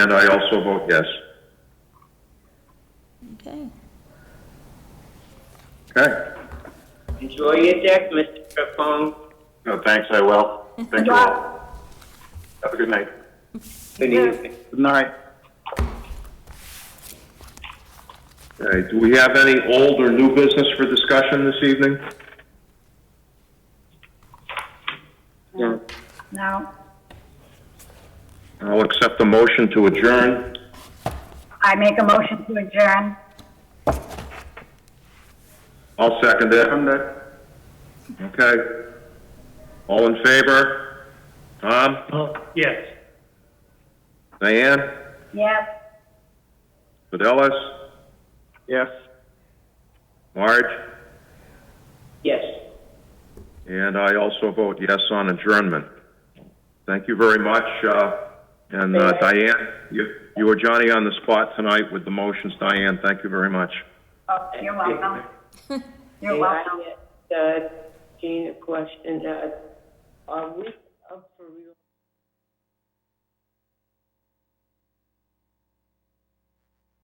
And I also vote yes. Okay. Okay. Enjoy your deck, Mr. Capone. No, thanks, I will. Thank you all. Have a good night. Good evening. Good night. All right, do we have any old or new business for discussion this evening? No. Now, I'll accept the motion to adjourn. I make a motion to adjourn. I'll second it. Okay. All in favor? Tom? Yes. Diane? Yes. Fidelis? Yes. Marge? Yes. And I also vote yes on adjournment. Thank you very much. uh, And uh, Diane, you you were Johnny on the spot tonight with the motions. Diane, thank you very much. Oh, you're welcome. You're May I welcome. ask, uh, Jean a question? Uh, Are we up for real?